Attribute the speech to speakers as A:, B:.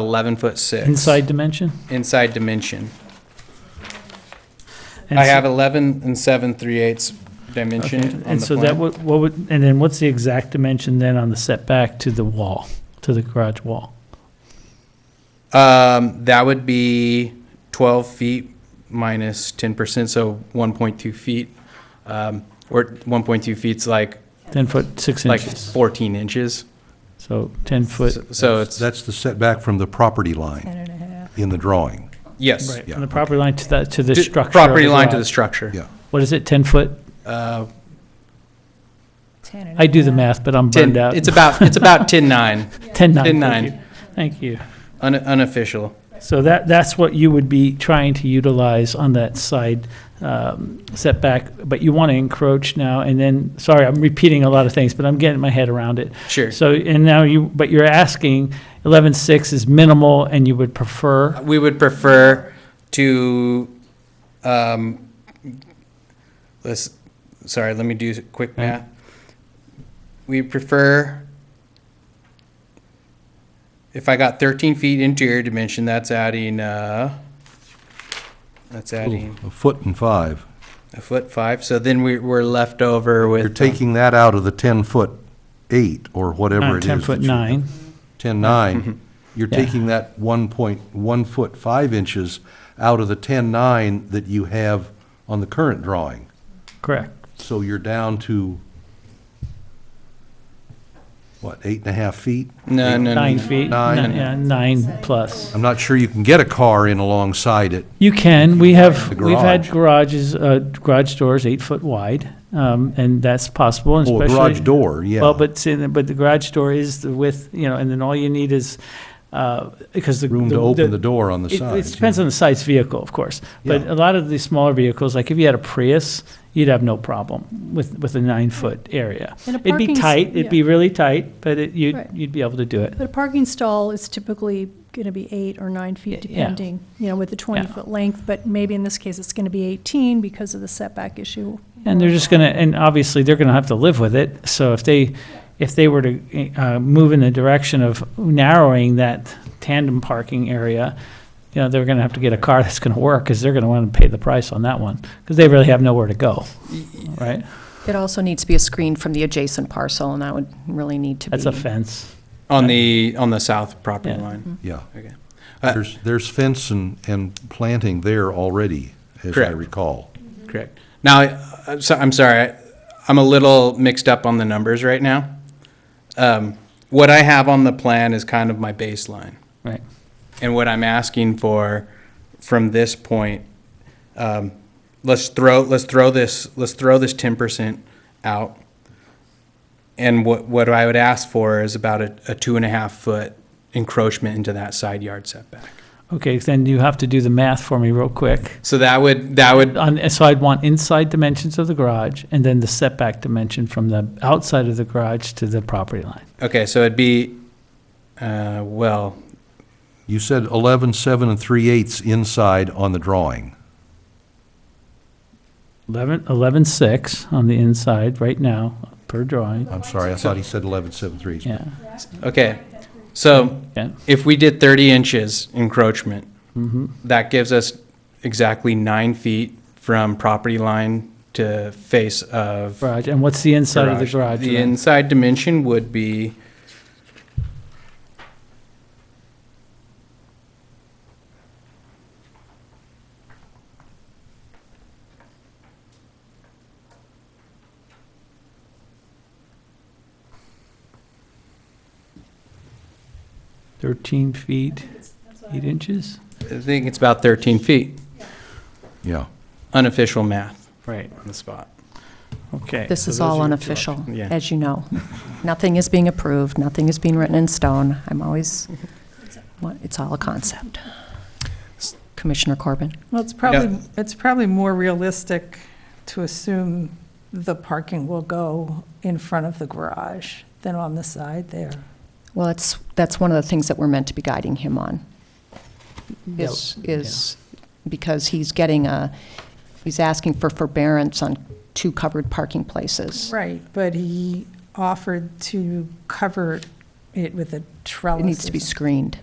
A: 11 foot 6.
B: Inside dimension?
A: Inside dimension. I have 11 and 7 3 eighths dimension on the plan.
B: Okay, And so that, would- what would, and then what's the exact dimension then on the setback to the wall, to the garage wall?
A: Um, that would be twelve feet minus ten percent, so one point two feet. Um, or one point two feet's like,
B: 10 foot, 6
A: like
B: inches.
A: fourteen inches.
B: So 10 foot,
A: So it's,
C: That's the setback from the property line
D: Ten and a half.
C: in the drawing.
A: yes.
B: right,
C: yeah,
B: from the property line to the, to the
A: To-
B: structure. of
A: Property line to the
B: garage.
A: structure.
C: Yeah.
B: What is it, 10 foot?
A: Uh,
D: Ten and a
B: I do the
D: half.
B: math, but I'm
A: ten,
B: burned out.
A: it's about, it's about ten nine,
B: 10,
A: 10,
B: 9. thank
A: nine.
B: you. Thank you.
A: un, unofficial.
B: So that, that's what you would be trying to utilize on that side um, setback, but you want to encroach now, and then, sorry, I'm repeating a lot of things, but I'm getting my head around it.
A: Sure.
B: So, and now you, but you're asking, 11.6 is minimal, and you would prefer,
A: We would prefer to, um, let's, sorry, let me do s- quick
B: Okay.
A: math. We prefer, if I got thirteen feet interior dimension, that's adding, uh, that's adding
C: A foot and five.
A: a foot five, so then we, we're left over with.
C: You're
A: um,
C: taking that out of the 10-foot eight or whatever
B: uh,
C: it is.
B: 10 foot
C: that you-
B: 9.
C: 10,
A: Mm-hmm.
C: nine. You're
B: Yeah.
C: taking that 1.1 foot 5 inches out of the 10, nine that you have on the current drawing.
B: Correct.
C: So you're down to, what, eight and a half feet?
A: No, no, no,
B: Nine
A: no.
B: feet,
C: Nine. Um,
B: ni- yeah, nine plus.
C: I'm not sure you can get a car in alongside it.
B: You can, we have,
C: The
B: we've had
C: garage.
B: garages, uh, garage doors eight foot wide, um, and that's possible, and
C: Oh, a
B: especially.
C: garage door, yeah.
B: Well, but, see, but the garage door is the width, you know, and then all you need is, uh, because the.
C: Room to open the door on the
B: It-
C: side.
B: It depends on the size vehicle, of course. But
C: Yeah.
B: a lot of these smaller vehicles, like if you had a Prius, you'd have no problem with, with a nine-foot area.
D: And a
B: It'd be
D: parking s-
B: tight, it'd
D: yeah.
B: be really tight, but it, you'd,
D: Right.
B: you'd be able to do it.
D: But a parking stall is typically going to be eight or nine feet,
B: Yeah.
D: depending, you know, with the 20-foot length, but maybe in this case, it's going to be 18 because of the setback issue.
B: And they're just gonna, and obviously, they're gonna have to live with it. So if they, if they were to, uh, move in the direction of narrowing that tandem parking area, you know, they're gonna have to get a car that's gonna work, because they're gonna want to pay the price on that one, because they really have nowhere to go, right?
E: It also needs to be a screen from the adjacent parcel, and that would really need to be.
B: That's a fence.
A: On the, on the south property
B: Yeah. Mm-hmm.
A: line.
C: Yeah.
A: Okay. Uh,
C: There's, there's fence and, and planting there already, as I
A: Correct.
C: recall.
A: Correct. Now, I- I'm so- I'm sorry, I- I'm a little mixed up on the numbers right now. Um, What I have on the plan is kind of my baseline.
B: Right.
A: And what I'm asking for from this point, um, let's throw, let's throw this, let's throw this 10% out. And what, what I would ask for is about a a two and a half foot encroachment into that side yard setback.
B: Okay, then you have to do the math for me real quick.
A: So that would, that would
B: On, so I'd want inside dimensions of the garage and then the setback dimension from the outside of the garage to the property line.
A: Okay, so it'd be, uh, well,
C: You said 11, 7, and 3 eighths inside on the drawing.
B: Eleven, eleven six on the inside right now per drawing.
C: I'm sorry, I thought he said 11, 7, 3 eighths.
B: Yeah,
A: okay. So
B: yeah.
A: if we did 30 inches encroachment,
B: mhm.
A: that gives us exactly nine feet from property line to face of
B: Garage, and what's the inside of the garage?
A: The
B: then?
A: inside dimension would be
B: Thirteen feet, eight inches?
A: I think it's about 13 feet,
C: Yeah.
A: unofficial math
B: Right,
A: on the spot.
B: okay.
E: This
B: so
E: is
B: those are
E: all
B: your two
E: unofficial,
A: Yeah.
E: as you know. Nothing is being approved, nothing is being written in stone. I'm always, what- it's all a concept. Commissioner Corbin?
F: Well, it's probably, it's probably more realistic to assume the parking will go in front of the garage than on the side there.
E: Well, it's, that's one of the things that we're meant to be guiding him on, is, is because he's getting a, he's asking for forbearance on two covered parking places.
F: Right, but he offered to cover it with a trellis.
E: It needs to be
F: or something.
E: screened.